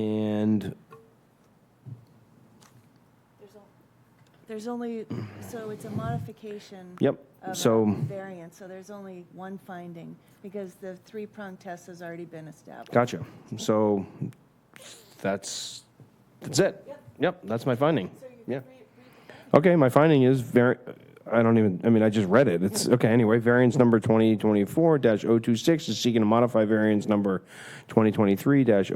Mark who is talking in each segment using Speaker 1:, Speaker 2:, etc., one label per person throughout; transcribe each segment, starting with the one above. Speaker 1: And
Speaker 2: There's al- There's only, so it's a modification.
Speaker 1: Yep,
Speaker 2: of a
Speaker 1: so-
Speaker 2: Variance, so there's only one finding, because the three-prong test has already been established.
Speaker 1: Gotcha. So that's, that's it.
Speaker 2: Yep.
Speaker 1: Yep, that's my finding. Yeah.
Speaker 2: Re- re-
Speaker 1: Okay, my finding is very, I don't even, I mean, I just read it. It's, okay, anyway, variance number 2024-026 is seeking to modify variance number 2023-012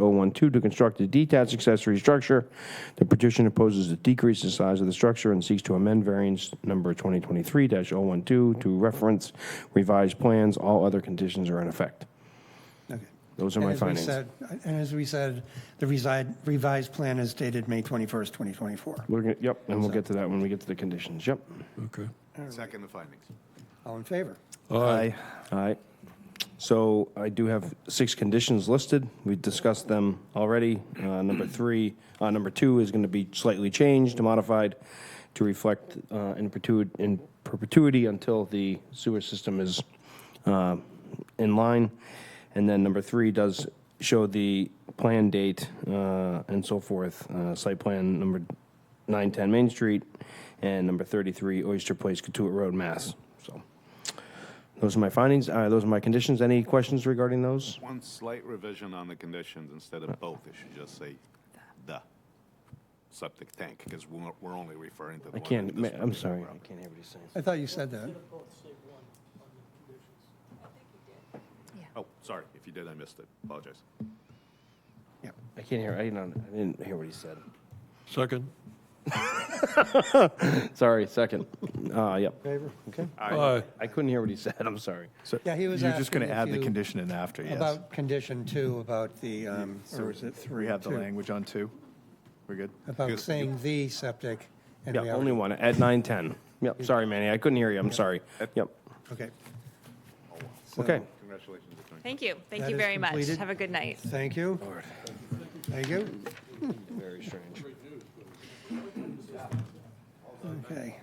Speaker 1: to construct a detached accessory structure. The petition opposes a decrease in size of the structure and seeks to amend variance number 2023-012 to reference revised plans. All other conditions are in effect.
Speaker 3: Okay.
Speaker 1: Those are my
Speaker 3: And as we
Speaker 1: findings.
Speaker 3: said- And as we said, the reside- revised plan is dated May 21st, 2024.
Speaker 1: We're gonna, yep, and we'll get to that when we get to the conditions, yep.
Speaker 4: Okay.
Speaker 5: Second the findings.
Speaker 3: All in favor?
Speaker 4: Aye.
Speaker 1: All right. So I do have six conditions listed. We discussed them already. Uh, Number three, uh, number two is going to be slightly changed, modified to reflect uh, in perpetuity, in perpetuity until the sewer system is uh, in line. And then number three does show the plan date uh, and so forth. Uh, Site plan number 910 Main Street and number 33 Oyster Place, Catuit Road, Mass. So those are my findings, uh, those are my conditions. Any questions regarding those?
Speaker 5: One slight revision on the conditions, instead of both, it should just say the septic tank, because we're, we're only referring to the
Speaker 1: I
Speaker 5: one.
Speaker 1: can't,
Speaker 5: in this
Speaker 1: ma- I'm
Speaker 5: particular
Speaker 1: sorry,
Speaker 5: round.
Speaker 1: I can't hear what he's saying.
Speaker 3: I thought you said that.
Speaker 5: Oh, sorry, if you did, I missed it, apologize.
Speaker 3: Yep.
Speaker 1: I can't hear, I didn't, I didn't hear what he said.
Speaker 4: Second.
Speaker 1: Sorry, second. Uh, yep.
Speaker 3: Favor?
Speaker 1: Okay.
Speaker 4: Aye.
Speaker 1: I couldn't hear what he said, I'm sorry.
Speaker 3: Yeah, he was
Speaker 6: You're just
Speaker 3: asking
Speaker 6: going to
Speaker 3: if
Speaker 6: add the
Speaker 3: you-
Speaker 6: condition in after, yes.
Speaker 3: About condition two, about the, um, or is it three?
Speaker 6: We have the
Speaker 3: two,
Speaker 6: language on two. We're good?
Speaker 3: About saying the septic. and
Speaker 1: Yeah,
Speaker 3: we
Speaker 1: only one,
Speaker 3: already-
Speaker 1: at 9:10. Yep, sorry, Manny, I couldn't hear you, I'm sorry. Yep,
Speaker 3: Okay. So,
Speaker 1: okay.
Speaker 5: Congratulations, Attorney.
Speaker 7: Thank you. Thank
Speaker 3: That
Speaker 7: you
Speaker 3: is
Speaker 7: very much.
Speaker 3: completed.
Speaker 7: Have a good night.
Speaker 3: Thank you. Thank you.
Speaker 1: Very strange.
Speaker 3: Okay.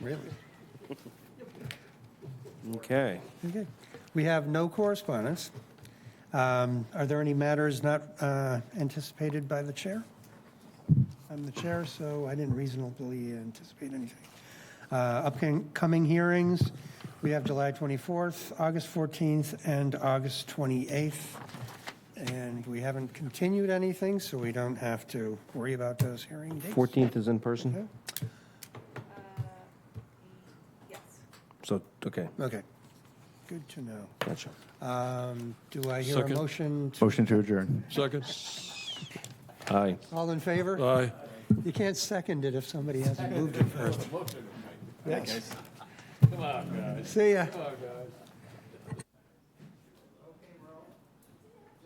Speaker 3: Really?
Speaker 1: Okay.
Speaker 3: Okay. We have no correspondence. Um, Are there any matters not uh, anticipated by the chair? I'm the chair, so I didn't reasonably anticipate anything. Uh, Upcoming hearings, we have July 24th, August 14th, and August 28th. And we haven't continued anything, so we don't have to worry about those hearing dates.
Speaker 1: 14th is in
Speaker 3: Mm-hmm.
Speaker 1: person?
Speaker 7: Yes.
Speaker 1: So, okay,
Speaker 3: Okay. Good to know.
Speaker 1: gotcha.
Speaker 3: Um, Do I hear a
Speaker 4: Second.
Speaker 3: motion? to-
Speaker 6: Motion to adjourn.
Speaker 4: Second.
Speaker 1: Aye.
Speaker 3: All in favor?
Speaker 4: Aye.
Speaker 3: You can't second it if somebody hasn't moved it first. Yes. See ya.